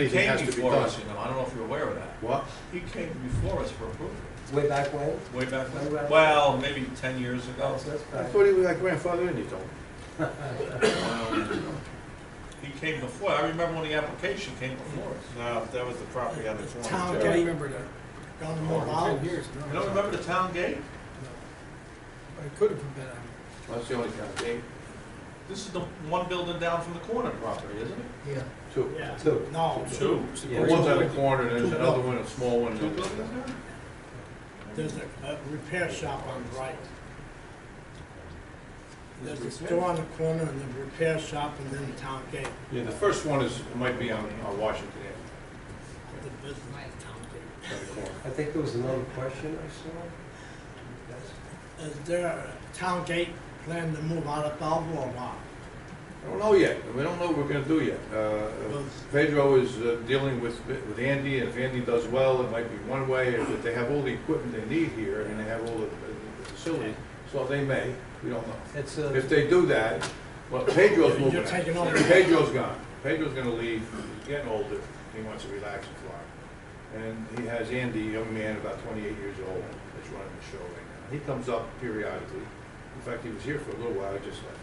Anything has came to be before done. us, you know, I don't know if you're aware of that. What? He came before us for approval, Way back when? way back Way when, back. well, maybe ten years ago. That's- that's I back. thought he was like grandfather in, you told me. Um, He came before, I remember when the application came before us. No, that was the property on the Town corner. Jerry. gate. Down the mall, all the years. You don't remember the town gate? It could have been, That's the only kind. Eight, This is the one building down from the corner property, isn't it? yeah. two. Two. No. Two. Yeah. One's on the corner, and there's another one, a small one. Two buildings there? There's a, a repair shop on the right. There's a store on the corner and the repair shop and then the town gate, Yeah, the first one is, might be on, on Washington the business is town gate. Avenue, on the corner. I think there was another question I saw. That's- Is there a town gate plan to move out of Belleville or not? I don't know yet, we don't know what we're gonna do yet. Uh, Pedro is uh, dealing with, with Andy, and if Andy does well, it might be one way, if they have all the equipment they need here, and they have all the the facilities, so they may, we don't know. It's uh, a, If they do that, well, Pedro's You're moving taking out. over. Pedro's gone. Pedro's gonna leave, he's getting older, he wants to relax and fly. And he has Andy, a young man, about twenty-eight years old, that's running the show right now. He comes up periodically. In fact, he was here for a little while, I just left.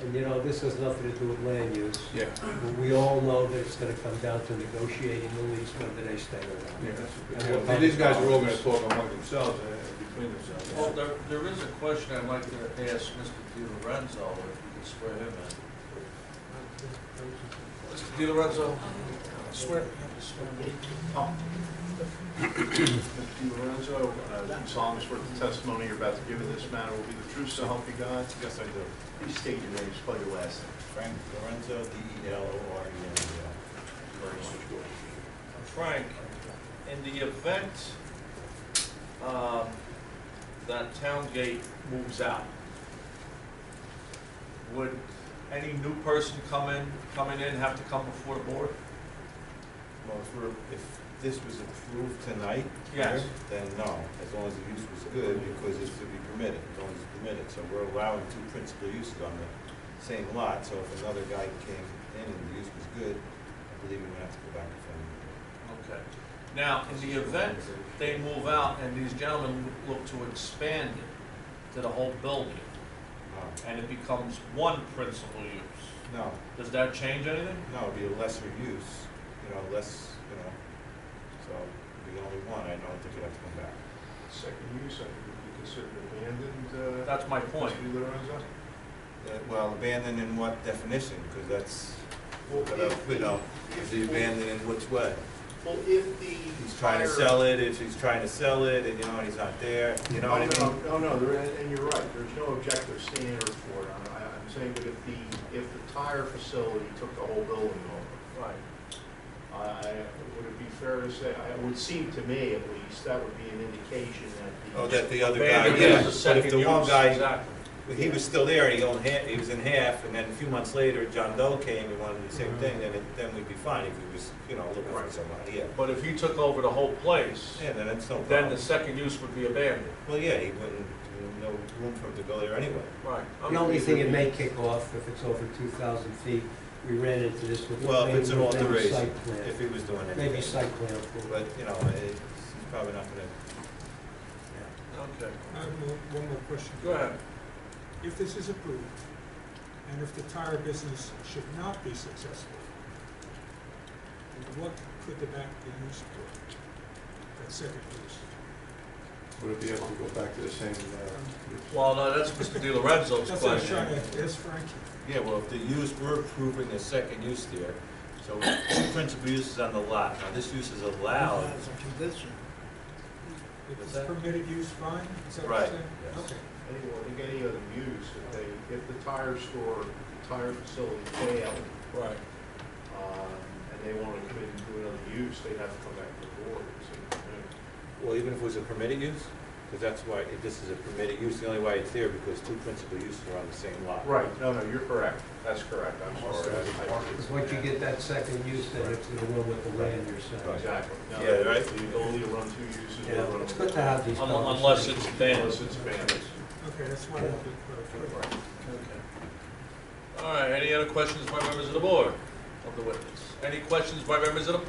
and you know, this has nothing to do with land use. Yeah. But We all know that it's gonna come down to negotiating the lease, whether they stay or not. Yeah, that's And a good what point. These guys are all gonna happens- talk among themselves, uh, between Well, themselves. there, there is a question I'd like to ask Mr. Di Lorenzo, if you could swear him in. Mr. Di Lorenzo? Swear. Oh. Mr. Lorenzo, uh, you solemnly swear that the testimony you're about to give in this matter will be the truth, so help you God? Yes, I do. Please state your name, spell your last name. Frank Lorenzo, D E L O R E N Z Frank, in the event um, that town gate moves out, would any new person come in, coming in have to come before the board? Well, if we're, if this was approved tonight? Yes. here, Then no, as long as the use was good, because it's to be permitted, as long as it's permitted. So we're allowing two principal uses on the same lot, so if another guy came in and the use was good, I believe we would have to go back to family. Okay. Now, in the event they move out and these gentlemen look to expand it to the whole building, and it becomes one principal use, No, does that change anything? no, it'd be a lesser use, you know, less, you know, so it'd be only one, I don't think it'd have to come back. Second use, I think would be considered abandoned, uh, That's my point. Mr. Lorenzo? Uh, Well, abandoned in what definition? Because that's, Well, if- you know, is he abandoned in which way? Well, if the. He's trying to sell it, if he's trying to sell it, and you know, he's not there, you know what I mean? No, no, there- and and you're right, there's no objective standard for it. I'm, I- I'm saying, but if the, if the tire facility took the whole building over, Right. I, would it be fair to say, I- it would seem to me at least, that would be an indication that the. Oh, that the other guy, Abandoned yeah, is a but if second the one use, guy, exactly. he was still there, he owned half, he was in half, and then a few months later, John Doe came and wanted to do the Mm-hmm. same thing, then, it- then we'd be fine if he was, you know, looking for Right. somebody, yeah. But if you took over the whole place, Yeah, then it's no problem. then the second use would be abandoned. Well, yeah, he wouldn't, no room for him to go there anyway. Right. The only thing it may kick off, if it's over two thousand feet, we ran into this with. Well, if it's an maybe alteration, site plan. if he was doing anything. Maybe site plan approval. But, you know, it's he's probably not gonna, yeah. Okay. I have one- one more question. Go ahead. If this is approved, and if the tire business should not be successful, then what could the back be used for? That second use? Would it be able to go back to the same, uh, Well, no, that's Mr. Di Lorenzo's That's what I'm question. trying to ask Frankie. Yeah, well, if the use, we're approving the second use there, so two principal uses on the lot, now this use is allowed. As a condition. If What's it's that? permitted use, fine? Is that what Right, you're saying? yes. Okay. Any, I think any other use, if they, if the tire store, the tire facility failed, Right. um, and they want to come in and do another use, they'd have to come back to the board and say, "No." Well, even if it was a permitted use, because that's why, if this is a permitted use, the only way it's there, because two principal uses are on the same lot. Right, no, no, you're correct, that's correct, I'm sorry. Because I- I- Once you get that second use, then it's the one with the land you're selling. Exactly. No, Yeah, right. The ability to run two uses. You know, It's good to have these. Un- Um, Unless it's Unless abandoned. it's banned. Okay, that's one of the clarification. All right, any other questions by members of the board, of the witness? Any questions by members of the